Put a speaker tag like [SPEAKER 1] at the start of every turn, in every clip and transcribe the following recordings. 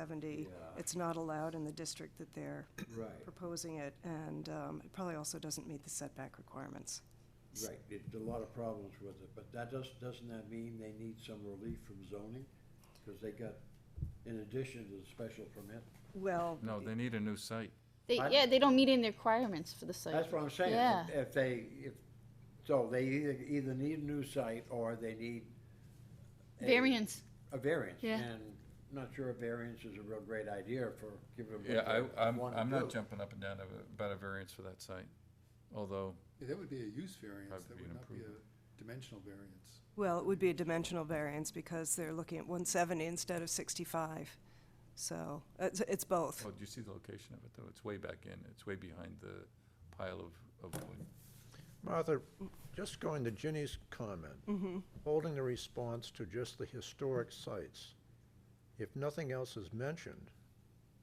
[SPEAKER 1] 70.
[SPEAKER 2] Yeah.
[SPEAKER 1] It's not allowed in the district that they're
[SPEAKER 2] Right,
[SPEAKER 1] proposing it, and um, it probably also doesn't meet the setback requirements.
[SPEAKER 2] right. It- There's a lot of problems with it, but that does, doesn't that mean they need some relief from zoning? Because they got, in addition to the special permit?
[SPEAKER 1] Well,
[SPEAKER 3] No, they need a new site.
[SPEAKER 4] They,
[SPEAKER 2] I-
[SPEAKER 4] yeah, they don't meet any requirements for the site.
[SPEAKER 2] That's what I'm saying.
[SPEAKER 4] Yeah.
[SPEAKER 2] If they, if, so they either, either need a new site or they need. a-
[SPEAKER 4] Variance.
[SPEAKER 2] A variance.
[SPEAKER 4] Yeah.
[SPEAKER 2] And I'm not sure a variance is a real great idea for giving them. what
[SPEAKER 3] Yeah,
[SPEAKER 2] they
[SPEAKER 3] I, I'm,
[SPEAKER 2] wanna
[SPEAKER 3] I'm not
[SPEAKER 2] do.
[SPEAKER 3] jumping up and down ab- about a variance for that site, although,
[SPEAKER 5] Yeah, that would be a use variance,
[SPEAKER 3] That'd
[SPEAKER 5] that
[SPEAKER 3] be an
[SPEAKER 5] would not be
[SPEAKER 3] improvement.
[SPEAKER 5] a dimensional variance.
[SPEAKER 1] well, it would be a dimensional variance because they're looking at 170 instead of 65. So it's it's both.
[SPEAKER 3] oh, do you see the location of it, though? It's way back in, it's way behind the pile of, of wood.
[SPEAKER 6] Martha, just going to Ginny's comment, holding the response to just the historic sites. If nothing else is mentioned,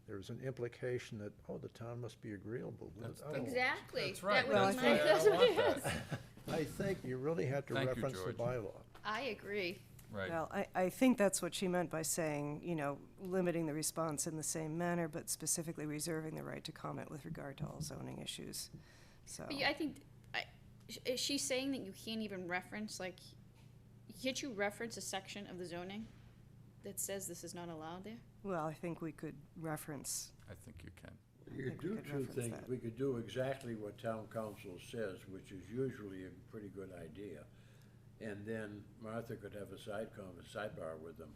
[SPEAKER 6] there's an implication that, oh, the town must be agreeable with
[SPEAKER 3] That's-
[SPEAKER 6] it.
[SPEAKER 3] that's-
[SPEAKER 6] Oh,
[SPEAKER 4] Exactly.
[SPEAKER 3] That's right, that's
[SPEAKER 1] my-
[SPEAKER 3] right, I don't want that.
[SPEAKER 6] I think you really had to
[SPEAKER 3] Thank you,
[SPEAKER 6] reference the
[SPEAKER 3] George.
[SPEAKER 6] bylaw.
[SPEAKER 4] I agree.
[SPEAKER 3] Right,
[SPEAKER 1] Well, I, I think that's what she meant by saying, you know, limiting the response in the same manner, but specifically reserving the right to comment with regard to all zoning issues,
[SPEAKER 3] Oh.
[SPEAKER 1] so.
[SPEAKER 4] But you- I think, I, sh- is she saying that you can't even reference, like, can't you reference a section of the zoning that says this is not allowed there?
[SPEAKER 1] Well, I think we could reference,
[SPEAKER 3] I think you can.
[SPEAKER 2] You
[SPEAKER 1] think
[SPEAKER 2] could
[SPEAKER 1] we
[SPEAKER 2] do
[SPEAKER 1] could
[SPEAKER 2] two
[SPEAKER 1] reference
[SPEAKER 2] things.
[SPEAKER 1] that.
[SPEAKER 2] We could do exactly what town council says, which is usually a pretty good idea. And then Martha could have a side con, a sidebar with them.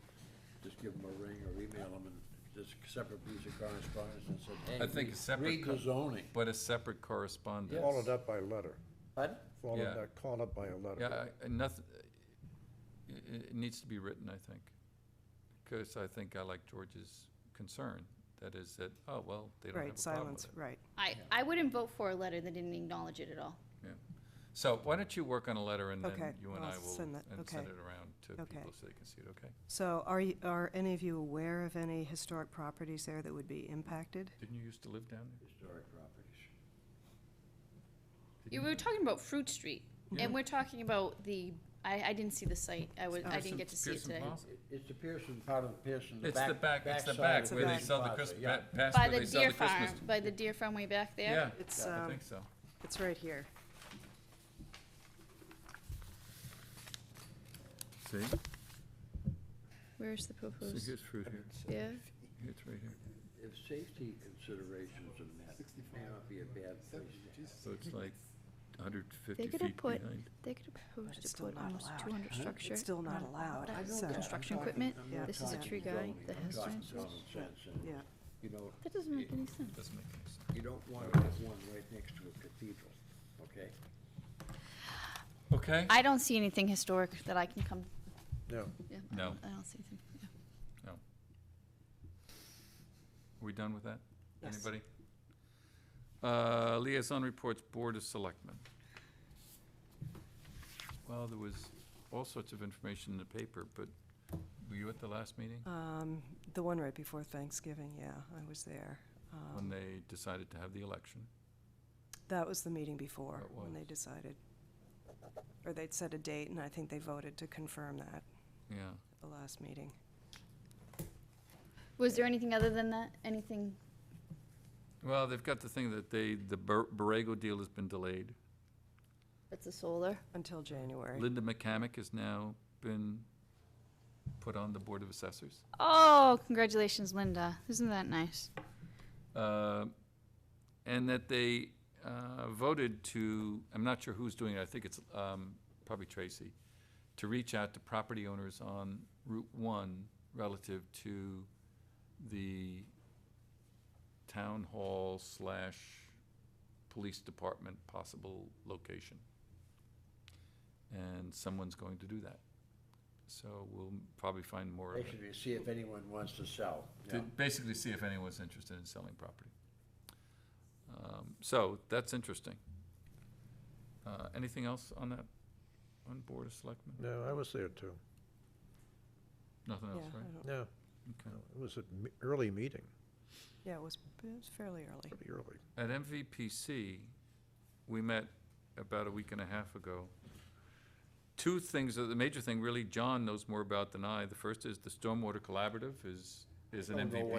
[SPEAKER 2] Just give them a ring or email them and just separate piece of correspondence and say, hey.
[SPEAKER 3] I think
[SPEAKER 2] re-
[SPEAKER 3] a separate
[SPEAKER 2] Read the
[SPEAKER 3] co-
[SPEAKER 2] zoning.
[SPEAKER 3] But a separate correspondence.
[SPEAKER 6] Followed up by letter,
[SPEAKER 2] Pardon?
[SPEAKER 3] Yeah.
[SPEAKER 6] followed up, called up by a
[SPEAKER 3] Yeah,
[SPEAKER 6] letter.
[SPEAKER 3] I- I, nothing, it, it needs to be written, I think. Because I think I like George's concern, that is that, oh, well, they don't have a
[SPEAKER 1] right,
[SPEAKER 3] problem with
[SPEAKER 1] silence,
[SPEAKER 3] it.
[SPEAKER 1] right.
[SPEAKER 4] I, I wouldn't vote for a letter that didn't acknowledge it at all.
[SPEAKER 3] Yeah. So why don't you work on a letter and
[SPEAKER 1] Okay,
[SPEAKER 3] then you and
[SPEAKER 1] I'll
[SPEAKER 3] I will,
[SPEAKER 1] send that,
[SPEAKER 3] and send
[SPEAKER 1] okay.
[SPEAKER 3] it around to
[SPEAKER 1] Okay.
[SPEAKER 3] people so they can see it, okay?
[SPEAKER 1] So are, you- are any of you aware of any historic properties there that would be impacted?
[SPEAKER 3] Didn't you used to live down there?
[SPEAKER 2] Historic properties.
[SPEAKER 4] You were talking about Fruit Street,
[SPEAKER 3] Yeah.
[SPEAKER 4] and we're talking about the, I, I didn't see the site. I was, I didn't get to see it
[SPEAKER 3] Pearson
[SPEAKER 4] today.
[SPEAKER 3] Plaza.
[SPEAKER 2] It- It's the Pearson, part of Pearson, the
[SPEAKER 3] It's
[SPEAKER 2] back.
[SPEAKER 3] the back, it's the
[SPEAKER 2] backside
[SPEAKER 3] back
[SPEAKER 2] of
[SPEAKER 3] where they
[SPEAKER 1] Pearson
[SPEAKER 3] sell the
[SPEAKER 2] Plaza,
[SPEAKER 3] Christ,
[SPEAKER 2] yeah.
[SPEAKER 3] past
[SPEAKER 4] By
[SPEAKER 3] where
[SPEAKER 4] the
[SPEAKER 3] they sell
[SPEAKER 4] deer
[SPEAKER 3] the Christmas.
[SPEAKER 4] farm, by the deer farm way back
[SPEAKER 3] Yeah,
[SPEAKER 4] there.
[SPEAKER 1] It's,
[SPEAKER 3] I
[SPEAKER 1] um,
[SPEAKER 3] think so.
[SPEAKER 1] it's right here.
[SPEAKER 3] See?
[SPEAKER 4] Where's the proposed?
[SPEAKER 3] here's fruit here.
[SPEAKER 4] Yeah.
[SPEAKER 3] It's right here.
[SPEAKER 2] If safety considerations are met, it may not be a bad place to have.
[SPEAKER 3] So it's like hundred fifty
[SPEAKER 4] They could
[SPEAKER 3] feet
[SPEAKER 4] have put,
[SPEAKER 3] behind.
[SPEAKER 4] they could have proposed
[SPEAKER 1] it's
[SPEAKER 4] to
[SPEAKER 1] still
[SPEAKER 4] put
[SPEAKER 1] not
[SPEAKER 4] almost
[SPEAKER 1] allowed.
[SPEAKER 4] two hundred structure.
[SPEAKER 1] It's still not allowed,
[SPEAKER 4] that-
[SPEAKER 1] so-
[SPEAKER 4] Construction
[SPEAKER 2] I'm talking-
[SPEAKER 4] equipment,
[SPEAKER 2] I'm
[SPEAKER 1] Yeah.
[SPEAKER 2] not
[SPEAKER 1] this is a
[SPEAKER 2] talking
[SPEAKER 4] tree guy
[SPEAKER 2] zoning,
[SPEAKER 4] that
[SPEAKER 2] I'm
[SPEAKER 4] has
[SPEAKER 2] talking
[SPEAKER 4] trees.
[SPEAKER 2] common sense and,
[SPEAKER 1] Yeah.
[SPEAKER 2] You know,
[SPEAKER 4] That doesn't make any sense.
[SPEAKER 3] Doesn't make any sense.
[SPEAKER 2] you don't want to have one right next to a cathedral, okay?
[SPEAKER 3] Okay?
[SPEAKER 4] I don't see anything historic that I can come,
[SPEAKER 6] No,
[SPEAKER 4] yeah. I
[SPEAKER 3] No.
[SPEAKER 4] don't- I don't see anything, yeah.
[SPEAKER 3] No. We done with that?
[SPEAKER 1] Yes.
[SPEAKER 3] Anybody? Uh, liaison reports, Board of Selectmen. Well, there was all sorts of information in the paper, but were you at the last meeting?
[SPEAKER 1] Um, the one right before Thanksgiving, yeah, I was there.
[SPEAKER 3] When
[SPEAKER 1] Um,
[SPEAKER 3] they decided to have the election?
[SPEAKER 1] That was the meeting before,
[SPEAKER 3] That
[SPEAKER 1] when they
[SPEAKER 3] was.
[SPEAKER 1] decided. Or they'd set a date, and I think they voted to confirm that
[SPEAKER 3] Yeah.
[SPEAKER 1] at the last meeting.
[SPEAKER 4] Was there anything other than that? Anything?
[SPEAKER 3] Well, they've got the thing that they, the Bar- Borrego deal has been delayed.
[SPEAKER 4] That's a solar.
[SPEAKER 1] Until January.
[SPEAKER 3] Linda McCamick has now been put on the Board of Assessors.
[SPEAKER 4] Oh, congratulations, Linda. Isn't that nice?
[SPEAKER 3] uh, and that they uh, voted to, I'm not sure who's doing it, I think it's um, probably Tracy, to reach out to property owners on Route 1 relative to the town hall slash police department possible location. And someone's going to do that. So we'll probably find more of it
[SPEAKER 2] Basically, see if anyone wants to sell.
[SPEAKER 3] to basically see if anyone's interested in selling property. Um, So, that's interesting. Uh, Anything else on that, on Board of Selectmen?
[SPEAKER 6] no, I was there too.
[SPEAKER 3] Nothing
[SPEAKER 1] Yeah,
[SPEAKER 3] else,
[SPEAKER 1] I
[SPEAKER 3] right?
[SPEAKER 1] don't-
[SPEAKER 6] No, no,
[SPEAKER 3] Okay.
[SPEAKER 6] it was an early meeting,
[SPEAKER 1] yeah, it was, it was fairly early.
[SPEAKER 6] pretty early.
[SPEAKER 3] At MVPC, we met about a week and a half ago. Two things, the major thing really John knows more about than I. The first is the Stormwater Collaborative is, is an
[SPEAKER 2] Don't know
[SPEAKER 3] MVP.
[SPEAKER 2] what